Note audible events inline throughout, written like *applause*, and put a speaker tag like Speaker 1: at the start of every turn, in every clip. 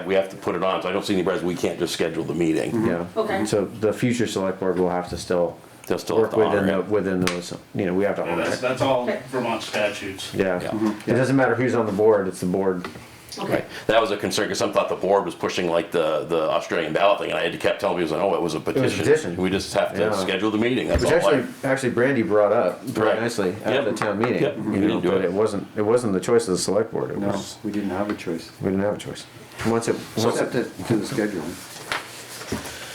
Speaker 1: Yeah, we have to put it on, so I don't see any reason we can't just schedule the
Speaker 2: Mm-hmm.
Speaker 1: meeting.
Speaker 3: Yeah.
Speaker 4: Okay.
Speaker 3: So the future select board will have to still
Speaker 1: They'll still have
Speaker 3: work
Speaker 1: to
Speaker 3: within,
Speaker 1: honor
Speaker 3: the
Speaker 1: it.
Speaker 3: within those, you know, we have to
Speaker 5: Yeah,
Speaker 3: honor
Speaker 5: That's,
Speaker 3: it.
Speaker 5: that's all Vermont statutes.
Speaker 3: Yeah.
Speaker 1: Yeah.
Speaker 3: It doesn't matter who's on the board, it's the board.
Speaker 4: Okay.
Speaker 1: Right, that was a concern, because some thought the board was pushing like the, the Australian ballot thing, and I had to kept telling people, oh, it was a
Speaker 3: petition.
Speaker 1: petition. We just have
Speaker 3: Yeah.
Speaker 1: to schedule the meeting, that's
Speaker 3: Which
Speaker 1: all. I-
Speaker 3: actually, actually Brandy brought up very
Speaker 1: Right.
Speaker 3: nicely at
Speaker 1: Yep.
Speaker 3: the town meeting.
Speaker 1: Yep. We
Speaker 3: You know,
Speaker 1: didn't do
Speaker 3: but
Speaker 1: it.
Speaker 3: it wasn't, it wasn't the choice of the select board. It
Speaker 2: No,
Speaker 3: was,
Speaker 2: we didn't have a choice,
Speaker 3: we didn't have a choice. Once it, once
Speaker 2: except
Speaker 3: it,
Speaker 2: to to the scheduling.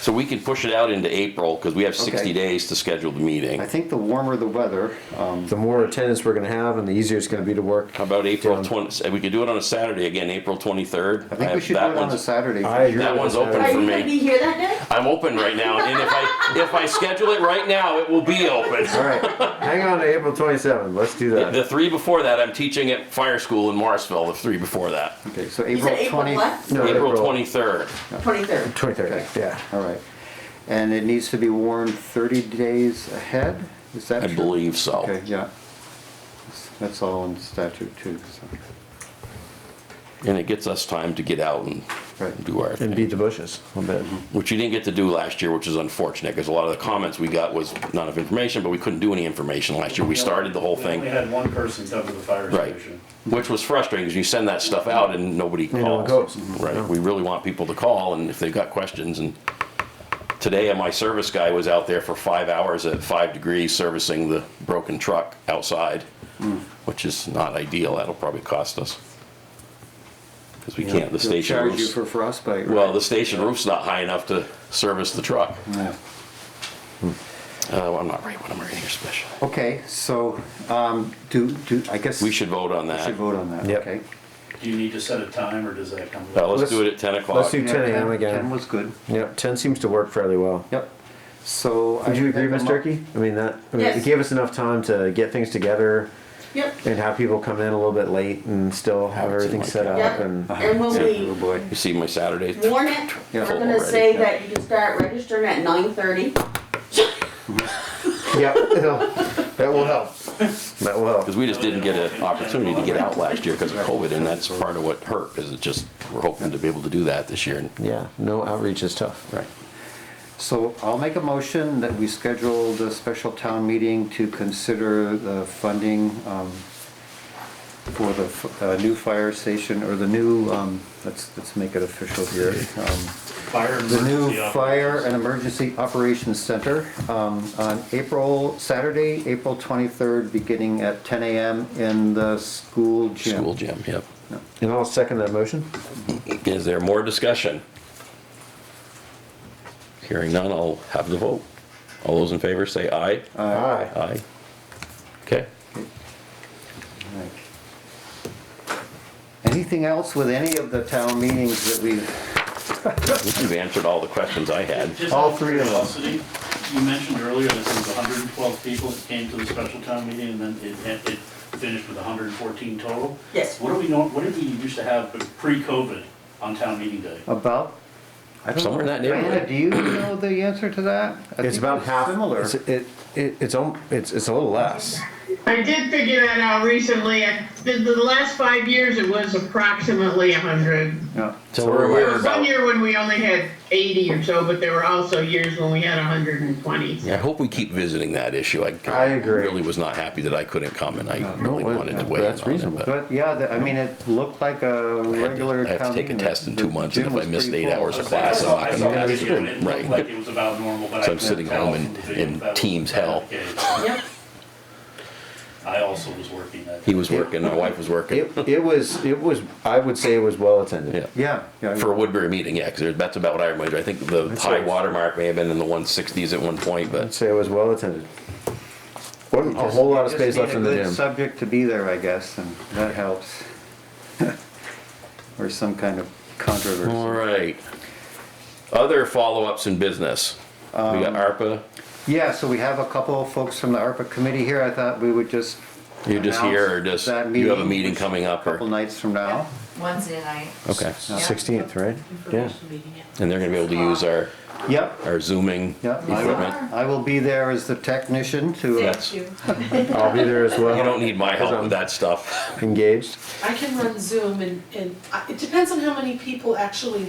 Speaker 1: So we can push it out into April, because we have sixty
Speaker 2: Okay.
Speaker 1: days to schedule the meeting.
Speaker 2: I think the warmer the weather, um,
Speaker 3: the more attendance we're gonna have and the easier it's gonna be to work.
Speaker 1: How about April
Speaker 3: Down.
Speaker 1: twenty, we could do it on a Saturday again, April twenty-third.
Speaker 2: I think we should do it on a Saturday.
Speaker 3: I agree.
Speaker 1: That
Speaker 3: with
Speaker 1: one's
Speaker 3: that.
Speaker 1: open
Speaker 4: Are
Speaker 1: for
Speaker 4: you gonna
Speaker 1: me.
Speaker 4: be here that day?
Speaker 1: I'm open right now, and if I, if I schedule it right now, it will be open.
Speaker 3: All right, hang on to April twenty-seventh, let's do that.
Speaker 1: The three before that, I'm teaching at fire school in Morrisville, the three before that.
Speaker 2: Okay, so
Speaker 4: You
Speaker 2: April
Speaker 4: said April
Speaker 2: twenty.
Speaker 4: what?
Speaker 3: No,
Speaker 1: April twenty-third.
Speaker 4: Twenty-third.
Speaker 3: Twenty-third, yeah.
Speaker 2: All right, and it needs to be warned thirty days ahead, is that
Speaker 1: I
Speaker 2: true?
Speaker 1: believe
Speaker 2: Okay,
Speaker 1: so.
Speaker 2: yeah. That's all in statute too, so,
Speaker 1: And it gets us time to get out and
Speaker 2: Right.
Speaker 1: do our
Speaker 3: And
Speaker 1: thing,
Speaker 3: beat the bushes a little bit.
Speaker 1: which you didn't get to do last year, which is unfortunate, because a lot of the comments we got was not enough information, but we couldn't do any information last year. We started the whole
Speaker 5: We only
Speaker 1: thing,
Speaker 5: had one person cover the fire
Speaker 1: right?
Speaker 5: station.
Speaker 1: Which was frustrating, because you send that stuff out and nobody
Speaker 3: no one
Speaker 1: calls.
Speaker 2: Mm-hmm.
Speaker 3: goes.
Speaker 1: Right, we really want people to call, and if they've got questions, and today, uh, my service guy was out there for five hours at five degrees servicing the broken truck outside,
Speaker 2: Mm.
Speaker 1: which is not ideal, that'll probably cost us. Because we can't, the
Speaker 2: They'll
Speaker 1: station
Speaker 2: Charge you
Speaker 1: roof's-
Speaker 2: for frostbite, right?
Speaker 1: Well, the station roof's not high enough to service the truck.
Speaker 2: Yeah.
Speaker 1: Uh, I'm not right when I'm writing here special.
Speaker 2: Okay, so, um, do, do, I guess.
Speaker 1: We should vote on
Speaker 2: we should
Speaker 1: that.
Speaker 2: vote on that,
Speaker 3: Yep.
Speaker 2: okay?
Speaker 5: Do you need to set a time or does that come?
Speaker 1: Uh,
Speaker 5: later?
Speaker 1: let's
Speaker 3: Let's-
Speaker 1: do it at 10
Speaker 3: Let's
Speaker 1: o'clock.
Speaker 3: do ten AM
Speaker 2: Ten
Speaker 3: again.
Speaker 2: was good,
Speaker 3: Yep, ten seems to work fairly well.
Speaker 2: yep, so. I
Speaker 3: Would you agree,
Speaker 2: think
Speaker 3: Ms.
Speaker 2: I'm-
Speaker 3: Turkey? I mean, that, I mean, it
Speaker 4: Yes.
Speaker 3: gave us enough time to get things together
Speaker 4: Yep.
Speaker 3: and have people come in a little bit late and still have
Speaker 1: Have it
Speaker 3: everything
Speaker 1: like
Speaker 3: set
Speaker 1: that.
Speaker 3: up
Speaker 4: Yep.
Speaker 3: and,
Speaker 4: And when
Speaker 2: Oh,
Speaker 4: we
Speaker 2: boy.
Speaker 1: You see my Saturday?
Speaker 4: warn it,
Speaker 2: Yeah.
Speaker 4: we're gonna say that you can start registering at nine-thirty.
Speaker 3: *laughs* yep, it'll- that will help. That will
Speaker 1: Because
Speaker 3: help.
Speaker 1: we just didn't get an opportunity to get out last year because of COVID, and that's part of what hurt, is it just, we're hoping to be able to do that this year.
Speaker 3: Yeah, no outreach is tough.
Speaker 1: Right.
Speaker 2: So I'll make a motion that we schedule the special town meeting to consider the funding um, for the f- uh, new fire station, or the new, um, let's, let's make it official here. um,
Speaker 5: Fire
Speaker 2: The new
Speaker 5: emergency
Speaker 2: Fire
Speaker 5: operations.
Speaker 2: and Emergency Operations Center um, on April, Saturday, April 23rd, beginning at 10 a.m. in the school gym.
Speaker 1: School gym, yep.
Speaker 3: And I'll second that motion.
Speaker 1: Is there more discussion? Hearing none, I'll have the vote. All those in favor say aye.
Speaker 3: Aye.
Speaker 1: Aye. Okay.
Speaker 2: Right. Anything else with any of the town meetings that we've
Speaker 1: You've answered all the questions I had.
Speaker 5: Just
Speaker 3: all
Speaker 5: out
Speaker 3: three of them.
Speaker 5: curiosity, You mentioned earlier that there was 112 people that came to the special town meeting and then it, it finished with 114 total.
Speaker 4: Yes.
Speaker 5: What do we know, what did we used to have pre-COVID on town meeting day?
Speaker 2: About? I don't
Speaker 1: Somewhere in
Speaker 2: know.
Speaker 1: that neighborhood.
Speaker 2: Diana, do you know the answer to that? I
Speaker 3: It's
Speaker 2: think
Speaker 3: about
Speaker 2: it's
Speaker 3: half,
Speaker 2: Similar.
Speaker 3: it's, it, it, it's, al- it's, it's a little less.
Speaker 6: I did figure that out recently. I- The, the last five years, it was approximately 100.
Speaker 2: Yeah.
Speaker 1: So we're
Speaker 6: There
Speaker 1: aware
Speaker 6: was one
Speaker 1: about,
Speaker 6: year when we only had 80 or so, but there were also years when we had 120.
Speaker 1: I hope we keep visiting that issue. I
Speaker 3: I agree.
Speaker 1: really was not happy that I couldn't come and I
Speaker 3: No,
Speaker 1: really
Speaker 3: well,
Speaker 1: wanted to
Speaker 3: that's
Speaker 1: weigh in on it.
Speaker 3: reasonable.
Speaker 1: but-
Speaker 2: But yeah, the- I mean, it looked like a
Speaker 1: I had
Speaker 2: regular
Speaker 1: to- I have
Speaker 2: town
Speaker 1: to take a
Speaker 2: meeting.
Speaker 1: test in
Speaker 2: The
Speaker 1: two months, and
Speaker 2: gym
Speaker 1: if I
Speaker 2: was
Speaker 1: miss
Speaker 2: pretty
Speaker 1: eight
Speaker 2: full.
Speaker 1: hours of
Speaker 5: I
Speaker 1: class, I'm
Speaker 5: saw-
Speaker 1: not
Speaker 5: I
Speaker 1: gonna
Speaker 5: saw
Speaker 1: pass
Speaker 5: the
Speaker 1: it.
Speaker 5: video, and It
Speaker 1: Right.
Speaker 5: looked like it was about normal, but I.
Speaker 1: So I'm
Speaker 5: couldn't
Speaker 1: sitting
Speaker 5: tell
Speaker 1: home
Speaker 5: from
Speaker 1: in-
Speaker 5: the video
Speaker 1: in
Speaker 5: if that was
Speaker 1: team's hell.
Speaker 5: the case.
Speaker 4: Yep.
Speaker 5: I also was working that.
Speaker 1: He was working, my wife was working,
Speaker 3: It, it was, it was, I would say it was well attended.
Speaker 1: yeah.
Speaker 2: Yeah, yeah.
Speaker 1: For a Woodbury meeting, yeah, because that's about what I remember. I think the high
Speaker 3: right.
Speaker 1: water mark may have been in the one sixties at one point,
Speaker 3: I'd
Speaker 1: but
Speaker 3: say it was well attended. Wasn't a whole lot of
Speaker 2: Just
Speaker 3: space
Speaker 2: need
Speaker 3: left
Speaker 2: a
Speaker 3: in the
Speaker 2: good
Speaker 3: gym.
Speaker 2: Subject to be there, I guess, and that helps. *laughs* Or some kind of
Speaker 1: all
Speaker 2: controversy.
Speaker 1: right. Other follow-ups in business. We got ARPA.
Speaker 2: Yeah, so we have a couple of folks from the ARPA committee here. I thought we would just.
Speaker 1: You're just here, or just
Speaker 2: announce that
Speaker 1: you have a meeting
Speaker 2: which-
Speaker 1: coming up,
Speaker 2: Couple
Speaker 1: or
Speaker 2: nights from now.
Speaker 7: Wednesday night.
Speaker 1: okay,
Speaker 7: Yeah.
Speaker 3: Sixteenth, right? Yeah.
Speaker 1: and they're gonna be able to use our
Speaker 2: Yep,
Speaker 1: our zooming
Speaker 2: yep. I
Speaker 1: equipment.
Speaker 2: will- I will be there as the technician to, uh,
Speaker 1: Yes.
Speaker 7: Thank you.
Speaker 3: I'll be there as well.
Speaker 1: You don't need my help
Speaker 3: I'm
Speaker 1: with that stuff.
Speaker 3: Engaged.
Speaker 7: I can run Zoom and, and I- it depends on how many people actually